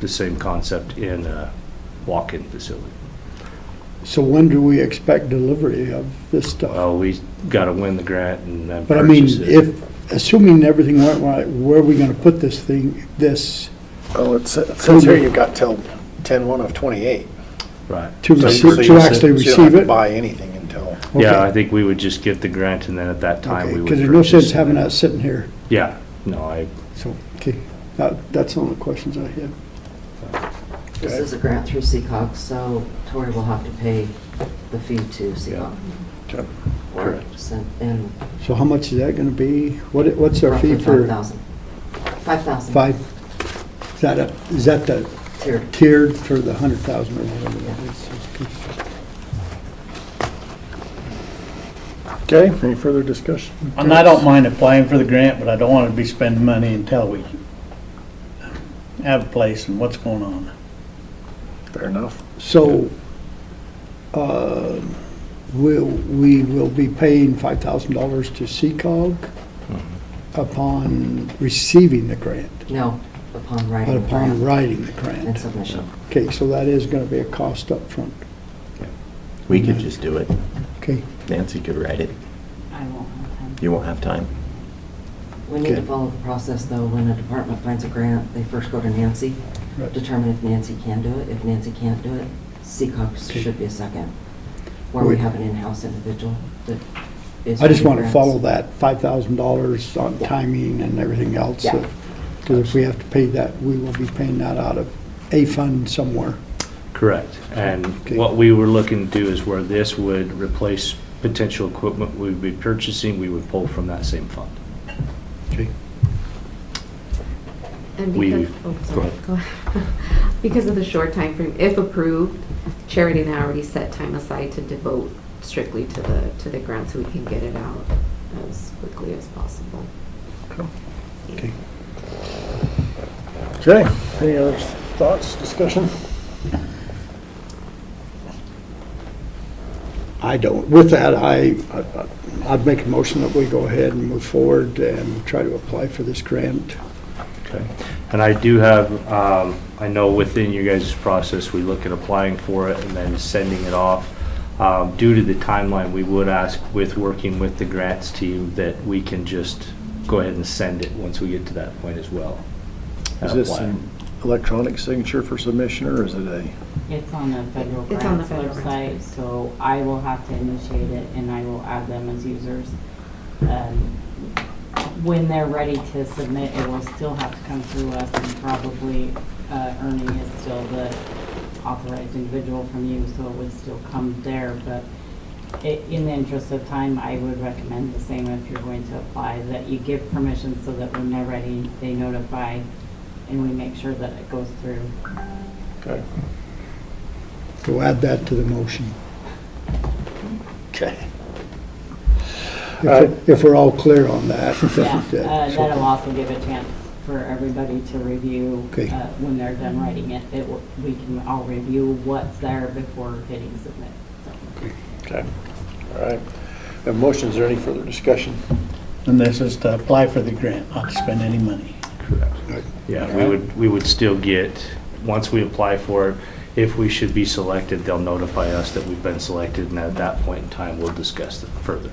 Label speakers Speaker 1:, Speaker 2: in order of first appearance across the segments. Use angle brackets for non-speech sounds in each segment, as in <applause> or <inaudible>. Speaker 1: the same concept in a walk-in facility.
Speaker 2: So when do we expect delivery of this stuff?
Speaker 1: Well, we got to win the grant and then
Speaker 2: But I mean,
Speaker 1: purchase it.
Speaker 2: if, assuming everything went right, where are we gonna put this thing, this,
Speaker 3: Well, it sa- it says here you've got till 10/1 of '28.
Speaker 1: Right.
Speaker 2: to
Speaker 3: So you- so
Speaker 2: receive,
Speaker 3: you
Speaker 2: to
Speaker 3: said-
Speaker 2: actually
Speaker 3: So you don't
Speaker 2: receive
Speaker 3: have to
Speaker 2: it?
Speaker 3: buy anything until,
Speaker 1: Yeah, I think we would just get the grant and then at that time we would.
Speaker 2: Because there's no
Speaker 1: purchase
Speaker 2: sense
Speaker 1: and
Speaker 2: having
Speaker 1: then-
Speaker 2: that sitting here,
Speaker 1: Yeah, no, I,
Speaker 2: so, okay, that, that's all the questions I have.
Speaker 4: This is a grant through Seacox, so Tori will have to pay the fee to Seacox.
Speaker 3: Yep.
Speaker 4: Or send in
Speaker 2: So how much is that gonna be? What, what's our
Speaker 4: roughly
Speaker 2: fee
Speaker 4: five
Speaker 2: for
Speaker 4: thousand. Five thousand.
Speaker 2: five? Is that a, is that the
Speaker 4: Tiered.
Speaker 2: tiered for the hundred thousand or whatever that is?
Speaker 3: okay, any further discussion?
Speaker 5: And I don't mind applying for the grant, but I don't want to be spending money until we have a place and what's going on.
Speaker 3: Fair enough.
Speaker 2: So, uh, we'll, we will be paying five thousand dollars to CCOG
Speaker 4: Mm-hmm.
Speaker 2: upon receiving the grant,
Speaker 4: No, upon
Speaker 2: but
Speaker 4: writing the
Speaker 2: upon
Speaker 4: grant
Speaker 2: writing the
Speaker 4: and
Speaker 2: grant.
Speaker 4: submission.
Speaker 2: Okay, so that is gonna be a cost up front.
Speaker 6: We could just do it.
Speaker 2: okay?
Speaker 6: Nancy could write it.
Speaker 7: I won't have time.
Speaker 6: You won't have time.
Speaker 4: We need to
Speaker 2: Okay.
Speaker 4: follow the process, though. When a department finds a grant, they first go to Nancy,
Speaker 2: Right.
Speaker 4: determine if Nancy can do it. If Nancy can't do it, Seacox
Speaker 2: Okay.
Speaker 4: should be a second, where we
Speaker 2: Would-
Speaker 4: have an in-house individual that is.
Speaker 2: I just
Speaker 4: writing
Speaker 2: want to
Speaker 4: grants.
Speaker 2: follow that five thousand dollars on timing and everything else.
Speaker 4: Yeah.
Speaker 2: Because if we have to pay that, we will be paying that out of a fund somewhere.
Speaker 1: correct. And
Speaker 2: Okay.
Speaker 1: what we were looking to do is where this would replace potential equipment we would be purchasing, we would pull from that same fund.
Speaker 2: Okay.
Speaker 7: And
Speaker 1: We-
Speaker 7: because, oh, sorry, go ahead. <laughs> Because of the short time frame, if approved, Charity now already set time aside to devote strictly to the, to the grant so we can get it out as quickly as possible.
Speaker 2: Okay.
Speaker 3: Okay, any other thoughts, discussion?
Speaker 2: I don't, with that, I, I- I'd make a motion that we go ahead and move forward and try to apply for this grant.
Speaker 1: Okay. And I do have, um, I know within your guys' process, we look at applying for it and then sending it off. Um, Due to the timeline, we would ask with working with the grants team that we can just go ahead and send it once we get to that point as well. and
Speaker 3: Is this
Speaker 1: apply.
Speaker 3: an electronic signature for submission, or is it a,
Speaker 8: It's on the federal
Speaker 7: It's on the
Speaker 8: grants
Speaker 7: federal grants
Speaker 8: website, so I will have to initiate it and I will add them as users. Um, When they're ready to submit, it will still have to come through us and probably uh, Ernie is still the authorized individual from you, so it would still come there. But i- in the interest of time, I would recommend the same if you're going to apply, that you give permission so that when they're ready, they notify and we make sure that it goes through.
Speaker 3: okay,
Speaker 2: So add that to the motion.
Speaker 3: Okay.
Speaker 2: If we're- If we're all clear on that.
Speaker 8: Yeah,
Speaker 2: then,
Speaker 8: uh,
Speaker 2: so-
Speaker 8: that'll also give a chance for everybody to review
Speaker 2: Okay.
Speaker 8: uh, when they're done writing it. It will- We can all review what's there before hitting submit.
Speaker 3: okay, all right. Have motion, is there any further discussion?
Speaker 5: And this is to apply for the grant, not to spend any money.
Speaker 1: Yeah, we would, we would still get, once we apply for it, if we should be selected, they'll notify us that we've been selected, and at that point in time, we'll discuss it further.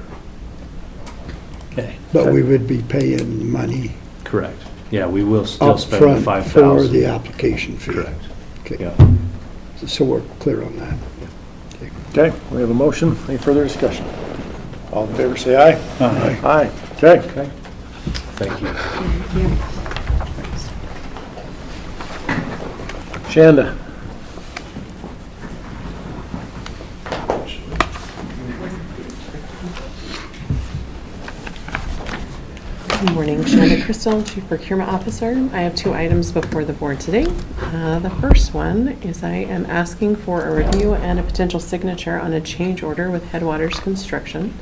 Speaker 5: Okay.
Speaker 2: But we would be paying money
Speaker 1: Correct. Yeah, we will still spend the
Speaker 2: upfront for
Speaker 1: 5,000.
Speaker 2: the application fee.
Speaker 1: Correct.
Speaker 2: Okay,
Speaker 1: Yeah.
Speaker 2: so we're clear on that.
Speaker 3: Okay, we have a motion, any further discussion? All in favor, say aye.
Speaker 5: Aye.
Speaker 3: Aye, okay.
Speaker 1: Okay. Thank you.
Speaker 3: Shanda,
Speaker 9: Good morning, Shonda Crystal, Chief Procurement Officer. I have two items before the board today. Uh, The first one is I am asking for a review and a potential signature on a change order with Headwaters Construction.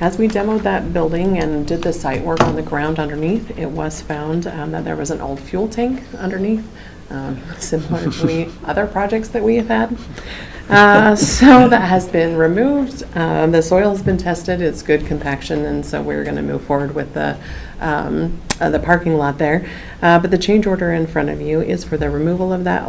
Speaker 9: As we demoed that building and did the site work on the ground underneath, it was found um, that there was an old fuel tank underneath um, <laughs> similar to we- other projects that we have had. Uh, So that has been removed. Um, The soil's been tested, it's good compaction, and so we're going to move forward with the, um, uh, the parking lot there. Uh, But the change order in front of you is for the removal of that